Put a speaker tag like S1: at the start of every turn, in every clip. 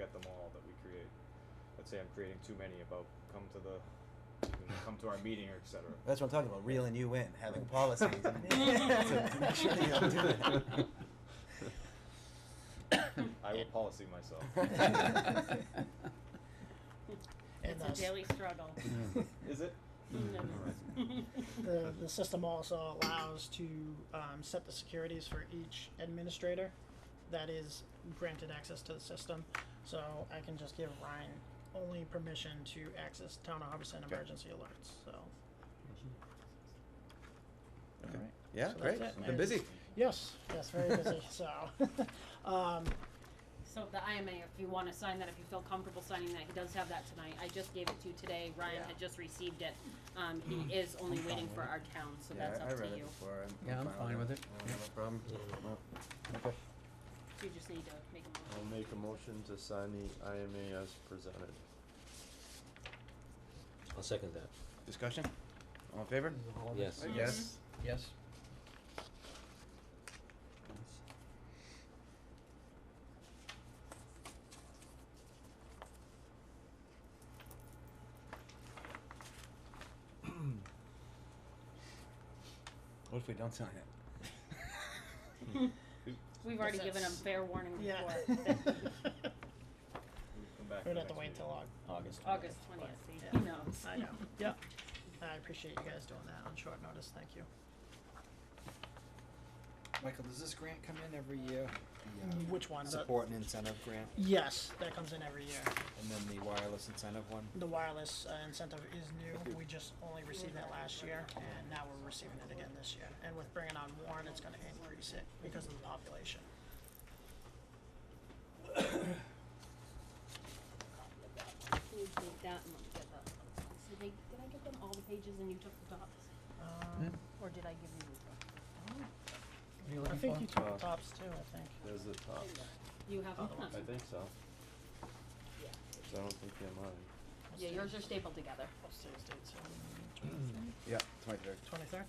S1: at them all that we create. Let's say I'm creating too many about come to the, you know, come to our meeting or et cetera.
S2: That's what I'm talking about, reeling you in, having policies. and- to make sure that you don't do that.
S1: I will policy myself.
S3: It's a
S4: that's-
S3: daily struggle.
S1: Is it?
S3: Mm, it is.
S4: The, the system also allows to um, set the securities for each administrator that is granted access to the system. So I can just give Ryan only permission to access town of Hubbardson
S1: Okay.
S4: emergency alerts, so.
S2: Okay. Yeah,
S4: So
S2: great,
S4: that's it.
S2: been busy.
S4: Yes, yes, very busy, so, um,
S3: So the IMA, if you wanna sign that, if you feel comfortable signing that, he does have that tonight, I just gave it to you today, Ryan
S4: Yeah.
S3: had just received it. Um, he is only waiting for our town, so
S2: Hmm. Yeah,
S3: that's
S2: I-
S3: up
S2: I
S3: to
S2: read it
S3: you,
S2: before, I'm-
S5: Yeah, I'm fine with
S2: I
S5: it.
S2: don't have a problem. Well, okay.
S3: you just need to make a motion.
S6: I'll make a motion to sign the IMA as presented.
S7: I'll second that.
S2: Discussion? All in favor?
S7: Yes.
S2: Yes.
S5: Yes.
S2: What if we don't sign it?
S3: We've already
S4: Yes,
S3: given him
S4: that's-
S3: fair warning
S4: yeah.
S3: before,
S1: We can come back.
S4: We'd
S1: the
S4: have to
S1: next
S4: wait
S1: meeting.
S4: till Au- August.
S3: August twentieth, he knows.
S4: I know, yep. I appreciate you guys doing that on short notice, thank you.
S8: Michael, does this grant come in every year? The, uh,
S4: Which one? The-
S8: Support and incentive grant,
S4: Yes, that comes in every year.
S8: and then the wireless incentive one?
S4: The wireless uh, incentive is new. We just only received that last year, and now we're receiving it again this year. And with bringing on Warren, it's gonna increase it because of the population.
S3: Can you take that and get that? So they, did I give them all the pages and you took the tops,
S4: Um,
S3: or did I give you the tops?
S5: What are you
S4: I
S5: looking
S4: think
S5: for?
S4: you took
S6: Uh,
S4: the tops too, I think.
S6: There's the top.
S3: You have
S4: Oh,
S3: them?
S6: I think so.
S3: Yeah.
S6: So I don't think they're mine.
S3: Yeah, yours are stapled together.
S4: What's today's date, so
S2: Hmm. Yeah, twenty-third.
S4: twenty-third?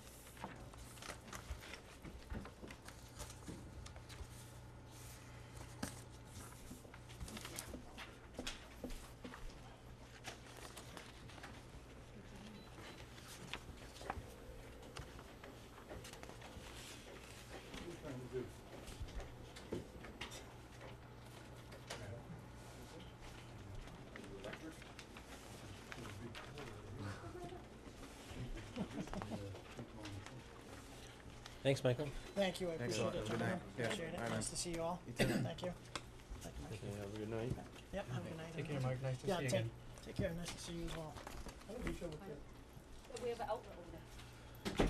S7: Thanks, Michael.
S4: Thank you, I
S2: Thanks a
S4: appreciate
S2: lot. Have
S4: it,
S2: a good
S4: gentlemen.
S2: night. Yeah,
S4: Appreciate it.
S2: bye, man.
S4: Nice to see you all.
S2: You too.
S4: Thank you. Thank you, Mike.
S6: Okay, have a good night.
S4: Yep, have a good night.
S5: Take care,
S4: everyone.
S5: Mike, nice to see
S4: Yeah,
S5: you
S4: take,
S5: again.
S4: take care. Nice to see you as well.
S3: We have an outlet over there.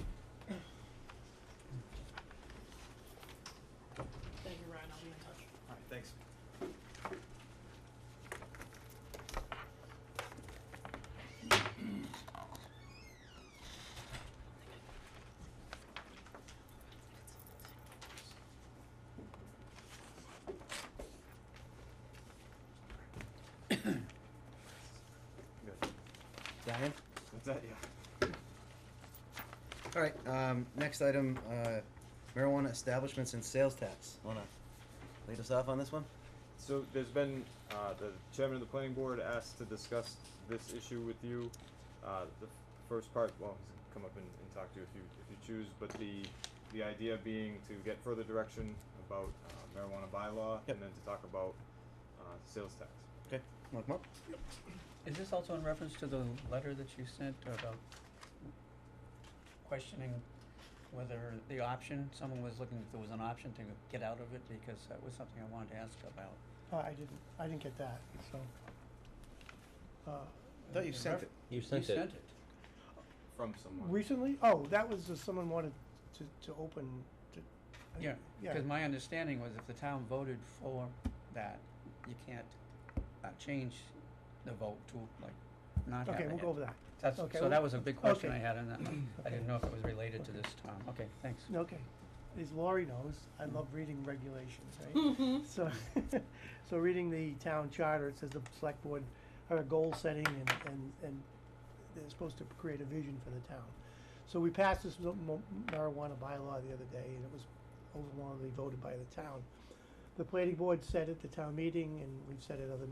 S4: Thank you, Ryan. I'll be in touch.
S8: Alright, thanks.
S1: Good.
S2: Diane?
S1: That's that, yeah.
S2: All right, um, next item, uh, marijuana establishments and sales tax. Wanna lead us off on this one?
S1: So there's been, uh, the chairman of the planning board asked to discuss this issue with you. Uh, the f- first part, well, he's gonna come up and, and talk to you if you, if you choose, but the, the idea being to get further direction about uh, marijuana bylaw
S2: Yep.
S1: and then to talk about, uh, sales tax.
S2: Okay, wanna come up?
S5: Is this also in reference to the letter that you sent about questioning whether the option, someone was looking if there was an option to get out of it, because that was something I wanted to ask about.
S4: I didn't, I didn't get that, so.
S9: Uh,
S2: Thought you sent it.
S7: You
S5: You
S7: sent it.
S5: sent it.
S1: From someone.
S9: Recently? Oh, that was just someone wanted to, to open, to. I-
S5: Yeah,
S9: Yeah.
S5: because my understanding was if the town voted for that, you can't, uh, change the vote to like not having
S9: Okay,
S5: it.
S9: we'll go over that.
S5: That's,
S9: okay,
S5: so
S9: we'll-
S5: that was a big question I
S9: okay.
S5: had and I- I didn't know if it was related to
S9: Okay.
S5: this, Tom. Okay, thanks.
S9: Okay, as Laurie knows, I love reading regulations, right? So, so reading the town charter, it says the select board are goal setting and, and, and they're supposed to create a vision for the town. So we passed this mo- mo- marijuana bylaw the other day and it was overwhelmingly voted by the town. The planning board said at the town meeting and we've said at other